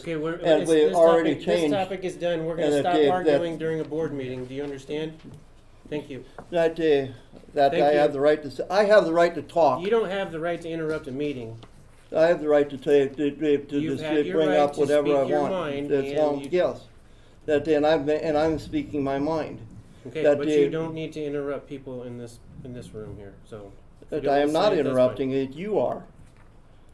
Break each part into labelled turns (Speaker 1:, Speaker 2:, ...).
Speaker 1: Okay, we're,
Speaker 2: And
Speaker 1: it's-
Speaker 2: we
Speaker 1: this
Speaker 2: already
Speaker 1: topic, this
Speaker 2: changed.
Speaker 1: topic is done, we're
Speaker 2: And
Speaker 1: gonna
Speaker 2: it
Speaker 1: stop
Speaker 2: gave that-
Speaker 1: arguing during a board meeting, do you understand? Thank you.
Speaker 2: that, uh, that
Speaker 1: Thank
Speaker 2: I
Speaker 1: you.
Speaker 2: have the right to, s- I have the right to talk.
Speaker 1: You don't have the right to interrupt a meeting.
Speaker 2: I have the right to say, to, to, to
Speaker 1: You've
Speaker 2: just
Speaker 1: had your
Speaker 2: bring
Speaker 1: right
Speaker 2: up
Speaker 1: to
Speaker 2: whatever
Speaker 1: speak
Speaker 2: I
Speaker 1: your
Speaker 2: want.
Speaker 1: mind,
Speaker 2: That's
Speaker 1: and
Speaker 2: all,
Speaker 1: you-
Speaker 2: yes. That, and I'm, and I'm speaking my mind.
Speaker 1: Okay,
Speaker 2: That
Speaker 1: but
Speaker 2: the-
Speaker 1: you don't need to interrupt people in this, in this room here, so. if you
Speaker 2: That
Speaker 1: don't
Speaker 2: I am
Speaker 1: wanna
Speaker 2: not
Speaker 1: say it, that's fine.
Speaker 2: interrupting it, you are.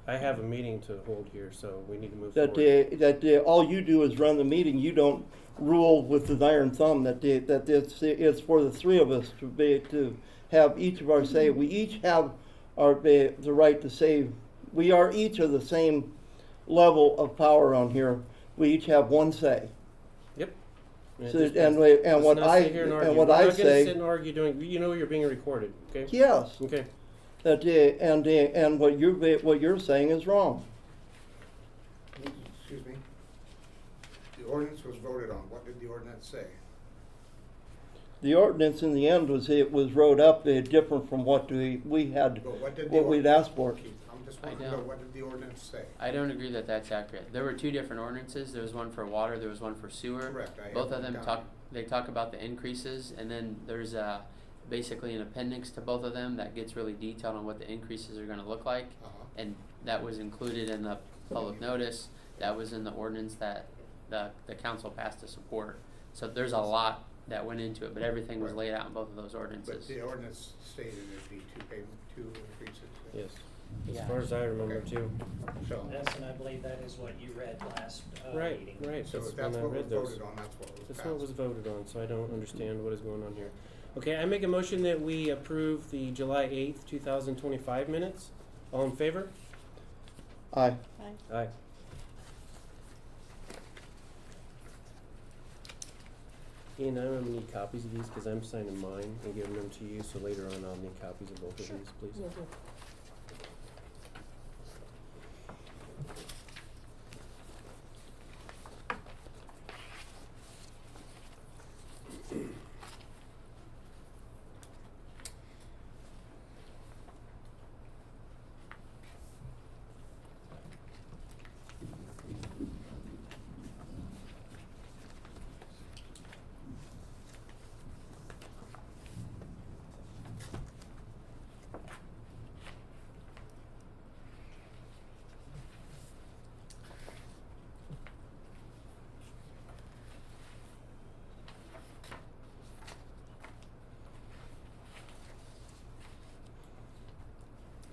Speaker 1: I have a meeting to hold here, so we need to move
Speaker 2: That,
Speaker 1: forward.
Speaker 2: uh, that, uh, all you do is run the meeting, you don't rule with an iron thumb, that, uh, that it's, it's for the three of us to be, to have each of our say. We each have our, uh, the right to say, we are each of the same level of power on here. We each have one say.
Speaker 1: Yep.
Speaker 2: So,
Speaker 1: Just-
Speaker 2: and, we- and
Speaker 1: let's
Speaker 2: what
Speaker 1: not
Speaker 2: I,
Speaker 1: sit here and
Speaker 2: and
Speaker 1: argue.
Speaker 2: what I
Speaker 1: We're not gonna sit
Speaker 2: say,
Speaker 1: and argue during, you know you're being recorded, okay?
Speaker 2: yes,
Speaker 1: Okay,
Speaker 2: that, uh, and, uh, and what you're, ba- what you're saying is wrong.
Speaker 3: Excuse me? The ordinance was voted on. What did the ordinance say?
Speaker 2: The ordinance in the end was, it was wrote up, uh, different from what we, we had,
Speaker 3: Well, what did the
Speaker 2: what we'd
Speaker 3: ordinance-
Speaker 2: asked for.
Speaker 3: Keith, I'm just
Speaker 4: I
Speaker 3: wanting to know,
Speaker 4: don't.
Speaker 3: what did the ordinance say?
Speaker 4: I don't agree that that's accurate. There were two different ordinances. There was one for water, there was one for sewer.
Speaker 3: Correct, I
Speaker 4: Both
Speaker 3: have
Speaker 4: of
Speaker 3: them
Speaker 4: them
Speaker 3: down.
Speaker 4: talk, they talk about the increases, and then there's uh basically an appendix to both of them that gets really detailed on what the increases are gonna look like.
Speaker 3: Uh-huh.
Speaker 4: And that was included in the public notice, that was in the ordinance that the, the council passed to support. So there's a lot that went into it, but everything was
Speaker 3: Right.
Speaker 4: laid out in both of those
Speaker 3: But
Speaker 4: ordinances.
Speaker 3: the ordinance stated it'd be two payment, two increases.
Speaker 1: yes. As
Speaker 4: Yeah.
Speaker 1: far as I remember
Speaker 3: Okay.
Speaker 1: too.
Speaker 3: So,
Speaker 5: Yes, and I believe that is what you read last uh,
Speaker 1: Right,
Speaker 5: meeting.
Speaker 1: right.
Speaker 3: so
Speaker 1: that's
Speaker 3: if that's
Speaker 1: when I
Speaker 3: what was
Speaker 1: read those.
Speaker 3: voted on, that's what was
Speaker 1: That's what was
Speaker 3: passed.
Speaker 1: voted on, so I don't understand what is going on here. Okay, I make a motion that we approve the July eighth, two thousand twenty-five minutes. All in favor?
Speaker 2: Aye.
Speaker 1: Aye. Ian, I'm gonna need copies of these, cause I'm signing mine and giving them to you, so later on I'll need copies of both of
Speaker 6: Sure.
Speaker 1: these, please.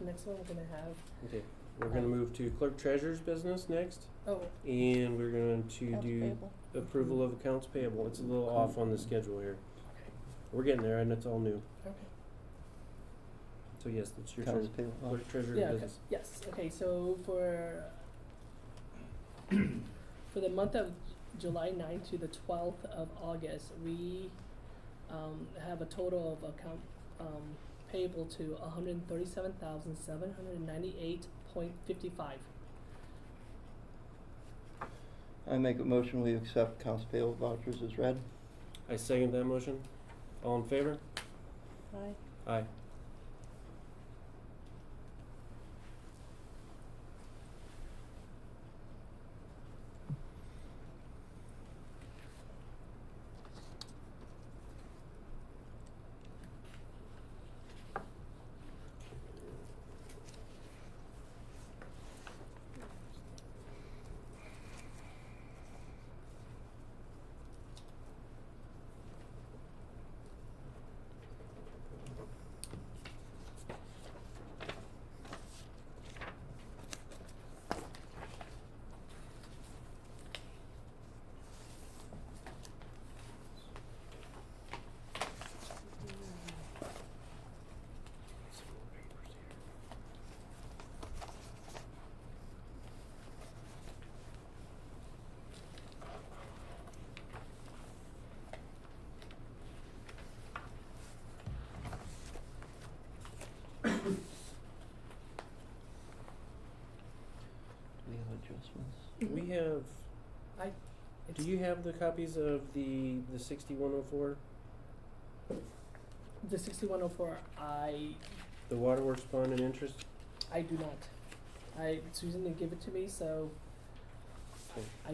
Speaker 6: Next one we're gonna have,
Speaker 1: Okay, we're gonna move to clerk treasurer's business next,
Speaker 6: oh,
Speaker 1: and we're going to
Speaker 6: accounts
Speaker 1: do
Speaker 6: payable.
Speaker 1: approval of accounts payable. It's a little off on the schedule here. We're getting there, and it's all new.
Speaker 6: Okay.
Speaker 1: So yes, it's your
Speaker 2: Accounts
Speaker 1: turn.
Speaker 2: payable.
Speaker 1: Clerk treasurer
Speaker 6: Yeah,
Speaker 1: business.
Speaker 6: okay. yes, okay, so for, for the month of July ninth to the twelfth of August, we, um, have a total of account, um, payable to hundred and thirty-seven thousand, seven hundred and ninety-eight point fifty-five.
Speaker 2: I make a motion, we accept accounts payable vouchers as read.
Speaker 1: I second that motion. All in favor?
Speaker 6: Aye.
Speaker 1: Aye.
Speaker 2: Do we have adjustments?
Speaker 6: Mm-hmm.
Speaker 1: We have, do you have the copies of the, the sixty-one oh four,
Speaker 6: The sixty-one oh four, I,
Speaker 1: the waterworks bond and interest?
Speaker 6: I do not. I, Susan didn't give it to me, so
Speaker 1: Okay.
Speaker 6: I